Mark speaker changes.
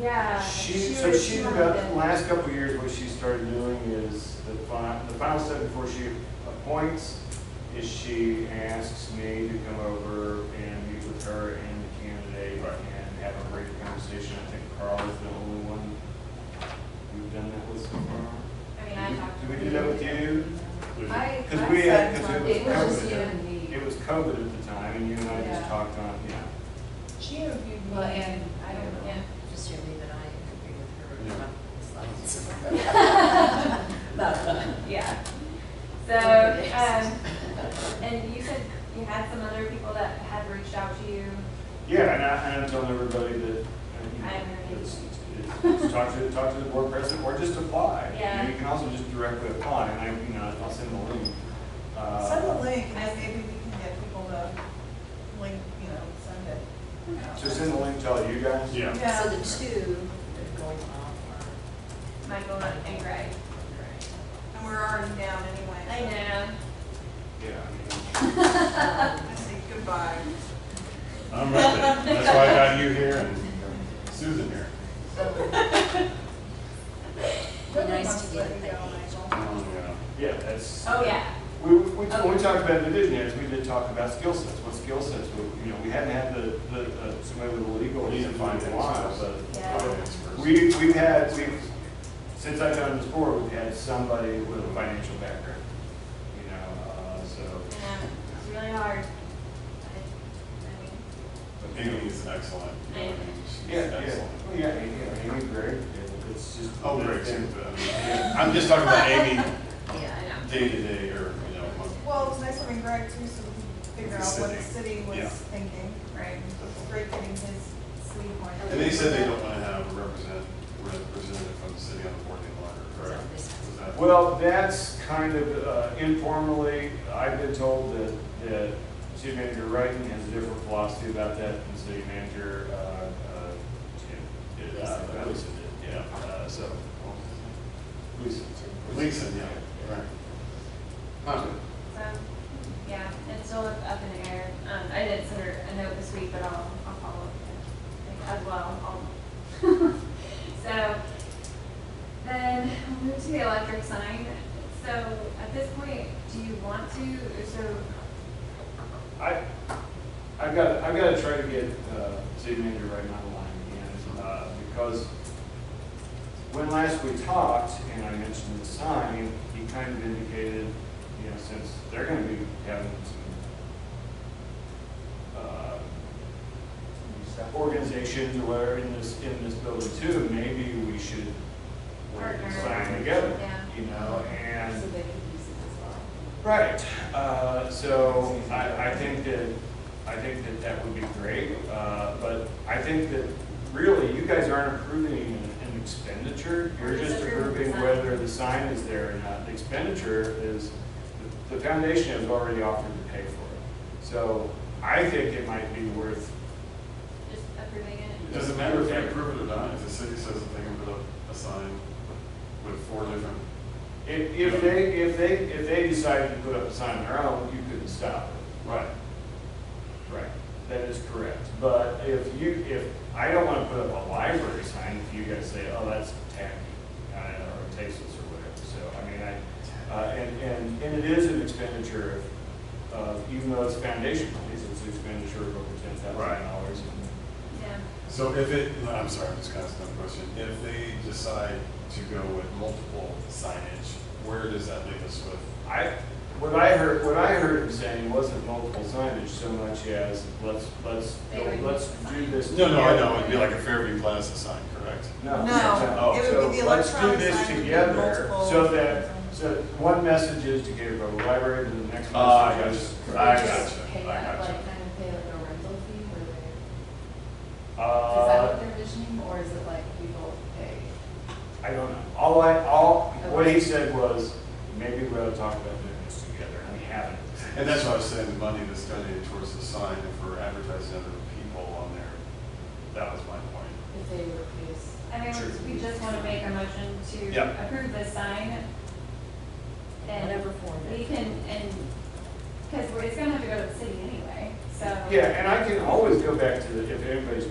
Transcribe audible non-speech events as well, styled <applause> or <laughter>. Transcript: Speaker 1: Yeah.
Speaker 2: She, so
Speaker 1: was-
Speaker 2: she, the
Speaker 1: wanted it.
Speaker 2: last couple of years, what she started doing is, the final, the final step before she appoints is she asks me to come over and meet with her and the candidate and have a brief conversation. I think Carl is the only one we've done that with so far.
Speaker 1: I mean, I talked.
Speaker 2: Did we
Speaker 1: to
Speaker 2: do that with you?
Speaker 3: I, I
Speaker 2: Because we had,
Speaker 3: said
Speaker 2: because
Speaker 3: something.
Speaker 2: it
Speaker 1: It
Speaker 2: was COVID.
Speaker 1: was just you
Speaker 2: at-
Speaker 1: and me.
Speaker 2: It was COVID at the time, and you and I just
Speaker 1: Yeah.
Speaker 2: talked on, yeah.
Speaker 3: She interviewed me
Speaker 4: Well, and I don't,
Speaker 3: know.
Speaker 4: yeah, just your leave and I agree with her
Speaker 2: Yeah.
Speaker 4: about the slides.
Speaker 5: <laughs>
Speaker 4: <laughs>
Speaker 1: Yeah. So, um, and you said you had some other people that had reached out to you.
Speaker 2: Yeah, and I, and I'm telling everybody that, uh, you know,
Speaker 1: I agree.
Speaker 2: it's, it's, it's talk to, talk to the board president, or just apply.
Speaker 1: Yeah.
Speaker 2: You can also just directly apply, and I, you know, I'll send the link. Uh,
Speaker 3: Send a link, and maybe we can get people to link, you know, send it. out.
Speaker 2: So send the link to all you guys?
Speaker 5: Yeah.
Speaker 3: Yeah.
Speaker 4: So the two that are going off
Speaker 5: <laughs>
Speaker 1: Michael and Greg.
Speaker 4: are,
Speaker 3: And we're already down anyway.
Speaker 1: I know.
Speaker 2: Yeah.
Speaker 3: know.
Speaker 4: Um,
Speaker 3: I say goodbye.
Speaker 5: I'm right there. That's why I got you here and Susan here.
Speaker 4: Be nice to get a package.
Speaker 5: Oh, yeah.
Speaker 2: Yeah, that's,
Speaker 1: Oh, yeah.
Speaker 2: we, we, when we talked about the visionaries, we did talk about skill sets, what skill sets, we- you know, we hadn't had the, the, uh, somebody with a legal, he's in finance, a while, but.
Speaker 1: Yeah.
Speaker 2: We, we've had, we've, since I've done this board, we've had somebody with a financial background, you know, uh, so.
Speaker 1: Yeah. It's really hard. I-
Speaker 5: But Amy is excellent. I mean, she's
Speaker 2: Yeah, yeah,
Speaker 5: excellent.
Speaker 2: well, yeah, Amy, yeah, Amy, Greg, it's just.
Speaker 5: Oh, great, too. but I'm just talking about Amy
Speaker 4: Yeah, I know.
Speaker 5: day to day or, you know, month-
Speaker 3: Well, it's nice having Greg too, so we can figure out what the city
Speaker 5: Yeah.
Speaker 3: was thinking, right? It's great getting his sleep on.
Speaker 5: and they said they don't want to have a represent, representative from the city on the board any longer, correct? Was that-
Speaker 2: Well, that's kind of uh, informally, I've been told that, that city manager Wrighton has a different philosophy about that than city manager, uh, uh, Jim. did, uh,
Speaker 5: Yeah.
Speaker 2: Gleason did, yeah, uh, so. Gleason.
Speaker 5: Leeson, yeah, right. Huh.
Speaker 1: So, yeah, it's still up in the air. Um, I did send her a note this week, but I'll, I'll follow up with her as well. I'll- <laughs> So, then we'll move to the electric sign. So at this point, do you want to, so
Speaker 2: I, I've got, I've got to try to get uh, city manager Wrighton on the line again, uh, because when last we talked, and I mentioned the sign, he kind of indicated, you know, since they're gonna be having some, uh, organizations or whatever in this, in this building too, maybe we should work and sign together,
Speaker 1: Yeah.
Speaker 2: you know, and
Speaker 4: So they could use it as well.
Speaker 2: Right, uh, so I, I think that, I think that that would be great, uh, but I think that really, you guys aren't approving an an expenditure, you're
Speaker 1: We're just
Speaker 2: just
Speaker 1: approving
Speaker 2: approving
Speaker 1: the sign.
Speaker 2: whether the sign is there or not. The expenditure is, the the foundation has already offered to pay for it. So I think it might be worth,
Speaker 1: just approving it?
Speaker 5: It Doesn't matter if they approve it or not, if the city says that they can put up a sign with four different,
Speaker 2: if, if they, if they, if they decided to put up a sign on their own, you couldn't stop it.
Speaker 5: right,
Speaker 2: Right, that is correct. But if you, if, I don't want to put up a library sign if you guys say, oh, that's tacky, uh, or tasteless or whatever. So, I mean, I, uh, and, and, and it is an expenditure of, of- even though it's foundation monies, it's an expenditure of over ten thousand dollars.
Speaker 1: Yeah.
Speaker 5: So if it, no, I'm sorry, I'm just asking that question. If they decide to go with multiple signage, where does that leave us with?
Speaker 2: I, what I heard, what I heard him saying wasn't multiple signage so much as, let's, let's,
Speaker 1: They would
Speaker 2: let's do this.
Speaker 5: No, no, I know,
Speaker 2: together.
Speaker 5: it'd be like a Fairview Plaza sign, correct?
Speaker 2: No. Oh,
Speaker 3: No, it would be the
Speaker 2: So let's do
Speaker 3: electronic
Speaker 2: this
Speaker 3: sign with
Speaker 2: together,
Speaker 3: multiple-
Speaker 2: so that, so one message is to get it from the library to the next
Speaker 5: Ah,
Speaker 2: message
Speaker 5: yes.
Speaker 2: is.
Speaker 5: I
Speaker 4: They just
Speaker 5: gotcha,
Speaker 4: Pay
Speaker 5: I
Speaker 4: that,
Speaker 5: gotcha.
Speaker 4: like, kind of pay like a rental fee where they, is that what
Speaker 2: Uh,
Speaker 4: they're visioning, or is it like we both pay?
Speaker 2: I don't know, all I, all, what he said was, maybe we ought to talk about doing this together, and we haven't.
Speaker 5: And that's why I was saying the money that's donated towards the sign, if we're advertising other people on there, that was my point.
Speaker 4: If they were pleased.
Speaker 1: I mean,
Speaker 5: Sure.
Speaker 1: we just want to make a motion to
Speaker 5: Yeah.
Speaker 1: approve this sign.
Speaker 4: Whatever
Speaker 1: And
Speaker 4: form it
Speaker 1: we
Speaker 4: is.
Speaker 1: can, and, because it's going to have to go to the city anyway, so.
Speaker 2: Yeah, and I can always go back to the, if anybody's